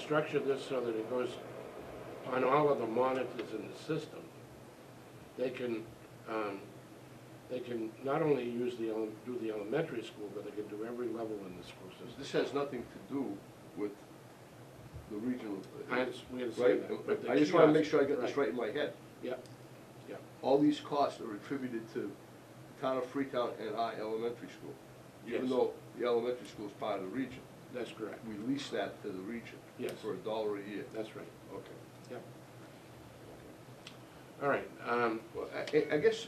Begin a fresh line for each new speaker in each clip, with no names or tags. structure this so that it goes on all of the monitors in the system. They can, um, they can not only use the, ele- do the elementary school, but they can do every level in the school system.
This has nothing to do with the regional.
I, under- we understand
Right?
that. but the
I just wanna
kiosk-
make sure I get this right in my head.
Yeah, yeah.
All these costs are attributed to town of Freetown and our elementary school. Even
Yes.
though the elementary school is part of the region.
That's correct.
We lease that to the region.
Yes.
For a dollar a year.
That's right.
Okay.
Yep. All right, um,
Well, I, I guess,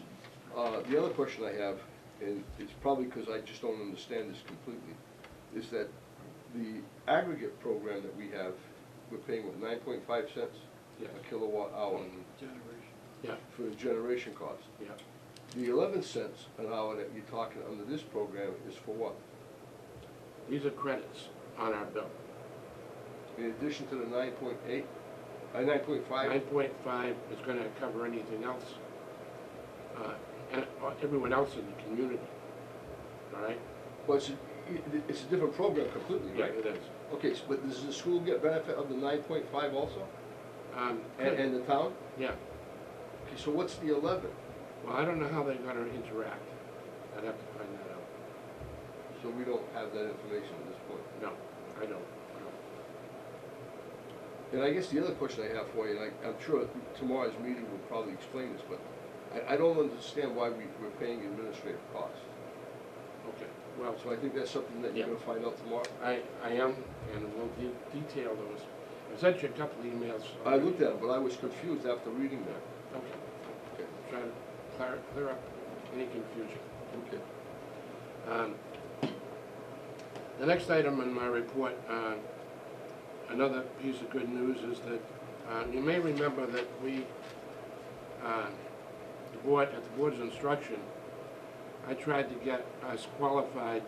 uh, the other question I have, and it's probably because I just don't understand this completely, is that the aggregate program that we have, we're paying what, nine point five cents?
Yes. Mm-hmm.
A kilowatt hour
yeah,
for the generation cost.
yeah.
The eleven cents an hour that you're talking under this program is for what?
These are credits on our bill.
In addition to the nine point eight, uh, nine point
Nine
five?
point five is gonna cover anything else, uh, and uh, everyone else in the community, all right?
Well, it's, a- it- it's a different program completely,
Yeah,
right?
it is.
Okay, so- but does the school get benefit of the nine point five also?
Um,
And, and the town?
yeah,
Okay, so what's the eleven?
well, I don't know how they're gonna interact. I'd have to find that out.
So we don't have that information at this point.
No, I don't.
And I guess the other question I have for you, and I, I'm sure tomorrow's meeting will probably explain this, but I, I don't understand why we, we're paying administrative costs.
Okay, well,
So I think that's something that you're gonna find out tomorrow.
I, I am, and we'll de- detail those. I sent you a couple emails.
I looked at it, but I was confused after reading that.
Okay,
Okay,
try to clear, clear up any confusion.
okay.
Um, The next item in my report, uh, another piece of good news is that uh, you may remember that we, uh, the board, at the board's instruction, I tried to get us qualified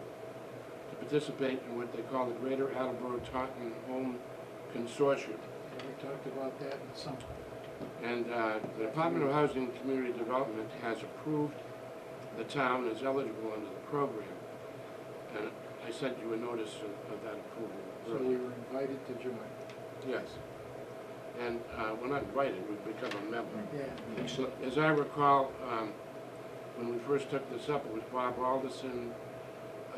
to participate in what they call the Greater Attleboro Taunton Home Consortium.
Yeah, We talked about that in some,
And uh, the Department of Housing and Community Development has approved the town as eligible under the program. And I sent you a notice of of that approval
so we
earlier.
were invited to join.
Yes. And uh, we're not invited, we've become a member.
Yeah,
So,
As I recall, um, when we first took this up, it was Bob Alderson,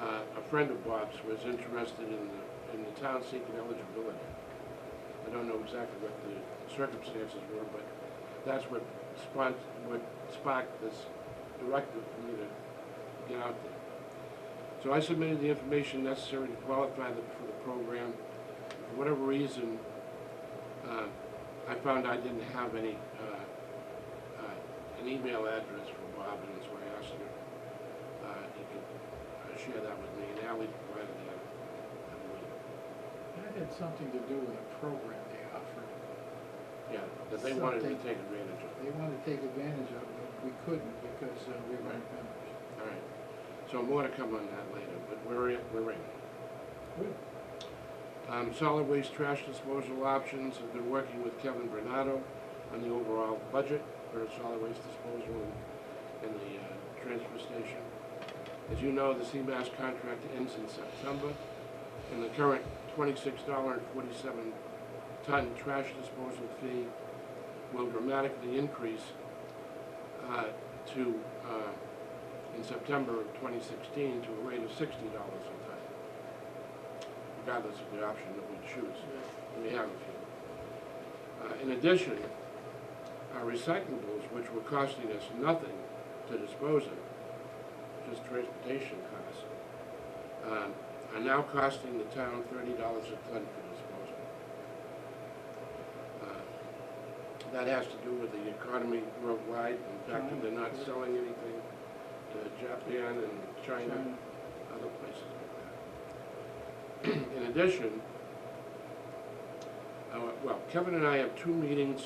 uh, a friend of Bob's, was interested in the, in the town seeking eligibility. I don't know exactly what the circumstances were, but that's what sparked, what sparked this directive for me to get out there. So I submitted the information necessary to qualify the, for the program. For whatever reason, uh, I found I didn't have any, uh, uh, an email address for Bob, and so I asked her, uh, if you could uh, share that with me, and Ally provided that. I believe.
that had something to do with a program they offered.
Yeah, that they wanted to
Something.
take advantage of.
They wanted to take advantage of it, but we couldn't because uh, we weren't members.
All right, so more to come on that later, but we're in, we're in. Um, solid waste trash disposal options, I've been working with Kevin Bernardo on the overall budget for solid waste disposal in, in the, uh, transfer station. As you know, the CMAS contract ends in September, and the current twenty-six dollar and forty-seven ton trash disposal fee will dramatically increase, uh, to, uh, in September of twenty sixteen to a rate of sixty dollars a ton regardless of the option that we choose. We have a few. Uh, In addition, our recyclables, which were costing us nothing to dispose of, just transportation costs, um, are now costing the town thirty dollars a ton for disposal. Uh, That has to do with the economy worldwide, and the fact that they're not selling anything to Japan and China
China.
other places like that. In addition, uh, well, Kevin and I have two meetings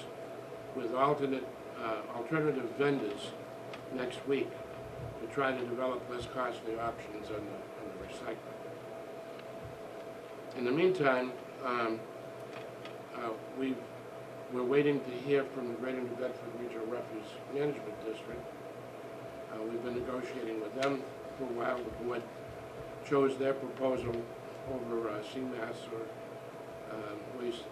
with alternate, uh, alternative vendors next week to try to develop less costly options on the, on the recycling. In the meantime, um, uh, we've, we're waiting to hear from the Greater New Bedford Regional Refuse Management District. Uh, we've been negotiating with them for a while, the board chose their proposal over uh, CMAS or um, waste